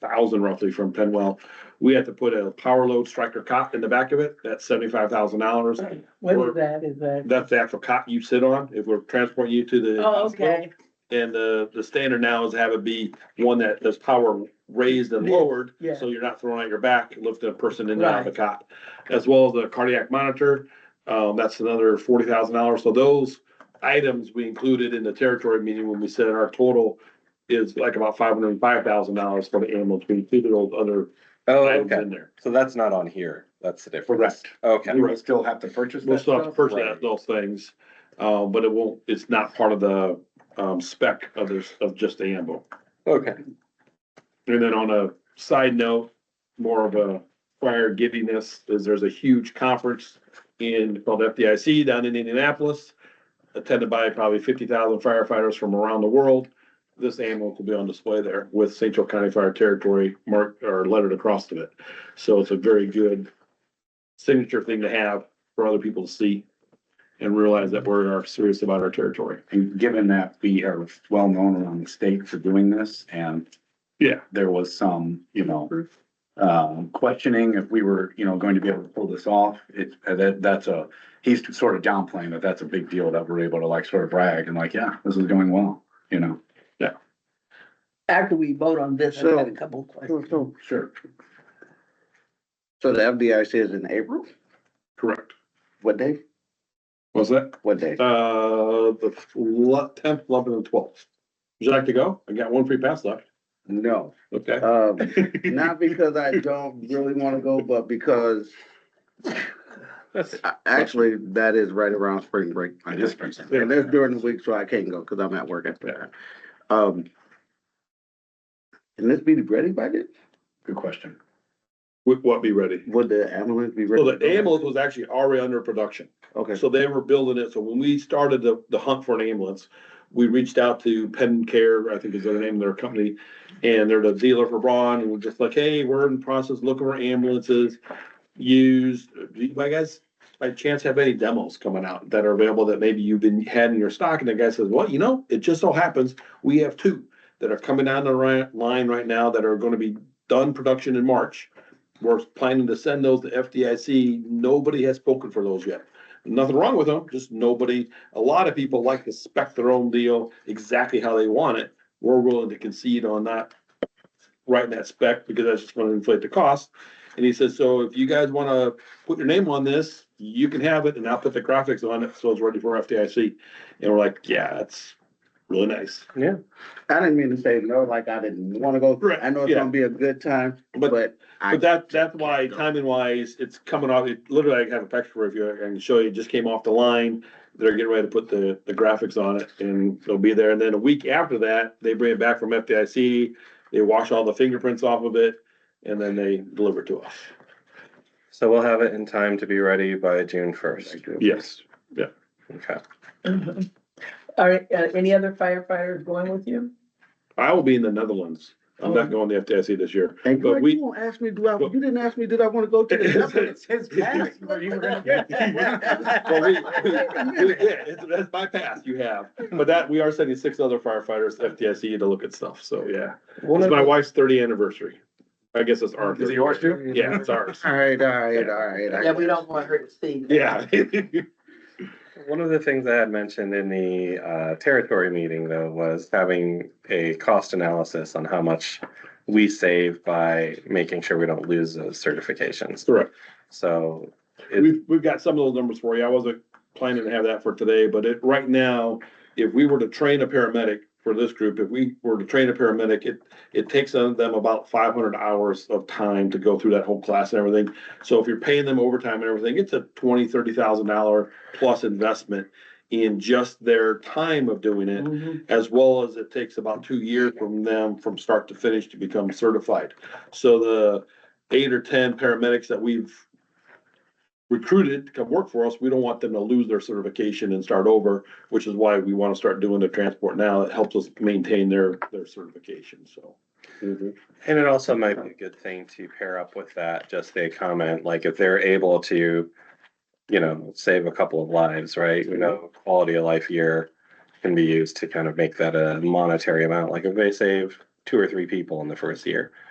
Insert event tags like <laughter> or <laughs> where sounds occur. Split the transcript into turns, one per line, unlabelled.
thousand roughly from Penwell. We had to put a power load striker cot in the back of it, that's seventy-five thousand
<clears throat>
dollars.
What
Or-
is that, is that?
That's the actual cot you sit on, if we're transporting you to the.
Oh,
hospital.
okay,
And the, the standard now is to have it be one that does power raised and
Yeah,
lowered,
yeah.
so you're not throwing out your back, lifting a person in and out of the
Right.
cot. As well as the cardiac monitor, um, that's another forty thousand dollars, so those items we included in the territory meeting when we said our total is like about five hundred and five thousand dollars for the ambulance, we included all the other
Oh,
items
okay.
in there.
So that's not on here. That's the difference.
Correct.
Okay.
We would still have to purchase
We'll
that
still have to
stuff?
purchase those things, uh, but it won't, it's not part of the, um, spec of this, of just the ambo.
Okay.
And then on a side note, more of a prior giddiness, is there's a huge conference in, called FDIC down in Indianapolis, attended by probably fifty thousand firefighters from around the world. This ambulance will be on display there with St. Joe County Fire Territory marked or lettered across of it. So it's a very good signature thing to have for other people to see and realize that we are serious about our territory.
And given that we are well-known around the state for doing this and.
Yeah.
There was some, you know, um, questioning if we were, you know, going to be able to pull this off. It's, uh, that, that's a, he's sort of downplaying that that's a big deal that we're able to like sort of brag and like, yeah, this is going well, you know?
after we vote on this, I got a
So-
couple of questions.
So, so,
Sure.
so the FDIC is in April?
Correct.
What day?
Was that?
What day?
Uh, the tenth, eleventh, and twelfth. Would you like to go? I got one free pass left.
No,
Okay.
um, not because I don't really wanna go, but because I- actually, that is right around spring break.
I just bring some.
And that's during the week, so I can't go, cause I'm at work at the time. Um. Can this be ready by then?
Good question.
Would what be ready?
Would the ambulance be ready?
Well, the ambulance was actually already under production,
Okay,
so they were building it. So when we started the, the hunt for an ambulance, we reached out to Penn Care, I think is their name, of their company, and they're the dealer for Braun, and we're just like, hey, we're in the process of looking for ambulances. Used, do you my guys, by chance have any demos coming out that are available that maybe you've been had in your stock? And the guy says, well, you know, it just so happens, we have two that are coming down the ri- line right now that are gonna be done production in March. We're planning to send those to FDIC. Nobody has spoken for those yet. Nothing wrong with them, just nobody, a lot of people like to spec their own deal exactly how they want it. We're willing to concede on not writing that spec because that's just gonna inflate the cost. And he says, so if you guys wanna put your name on this, you can have it and I'll put the graphics on it, so it's ready for FDIC. And we're like, yeah, it's really nice.
I didn't mean to say no, like I didn't wanna go.
Right,
I know it's
yeah.
gonna be a good time,
But
but I
But that, that's why timing wise, it's coming off, it literally, I have a picture of you, I can show you, it just came off the line. They're getting ready to put the, the graphics on it and it'll be there. And then a week after that, they bring it back from FDIC. They wash all the fingerprints off of it and then they deliver it to us.
So we'll have it in time to be ready by June first.
Yes.
Okay.
Mhm. All right, uh, any other firefighters going with you?
I will be in the Netherlands. I'm not going to FDIC this year.
<laughs> And
But
Greg,
we-
you won't ask me, do I,
but-
you didn't ask me, did I wanna go
<laughs>
to the Netherlands?
his
pass,
<laughs>
Well, we, we- we- yeah, it's- that's my pass you have. But that, we are sending six other firefighters to FDIC to look at stuff. So, yeah. It's my wife's thirty anniversary. I guess it's ours.
Is it yours too?
Yeah, it's
<laughs>
ours.
All right, all right, all right. I
Yeah, we don't want her to see. that.
Yeah.
One of the things I had mentioned in the uh, territory meeting though was having a cost analysis on how much we save by making sure we don't lose those certifications.
Correct.
So it,
We've, we've got some of those numbers for you. I wasn't planning to have that for today, but it, right now, if we were to train a paramedic for this group, if we were to train a paramedic, it, it takes them them about five hundred hours of time to go through that whole class and everything. So if you're paying them overtime and everything, it's a twenty, thirty thousand dollar plus investment in just their time of doing it.
Mhm.
as well as it takes about two years from them from start to finish to become certified. So the eight or ten paramedics that we've recruited to come work for us, we don't want them to lose their certification and start over, which is why we want to start doing the transport now. It helps us maintain their, their certification, so.
Mm-hmm.
And it also might be a good thing to pair up with that, just a comment, like if they're able to, you know, save a couple of lives, right? You know, quality of life year can be used to kind of make that a monetary amount. Like if they save two or three people in the first year,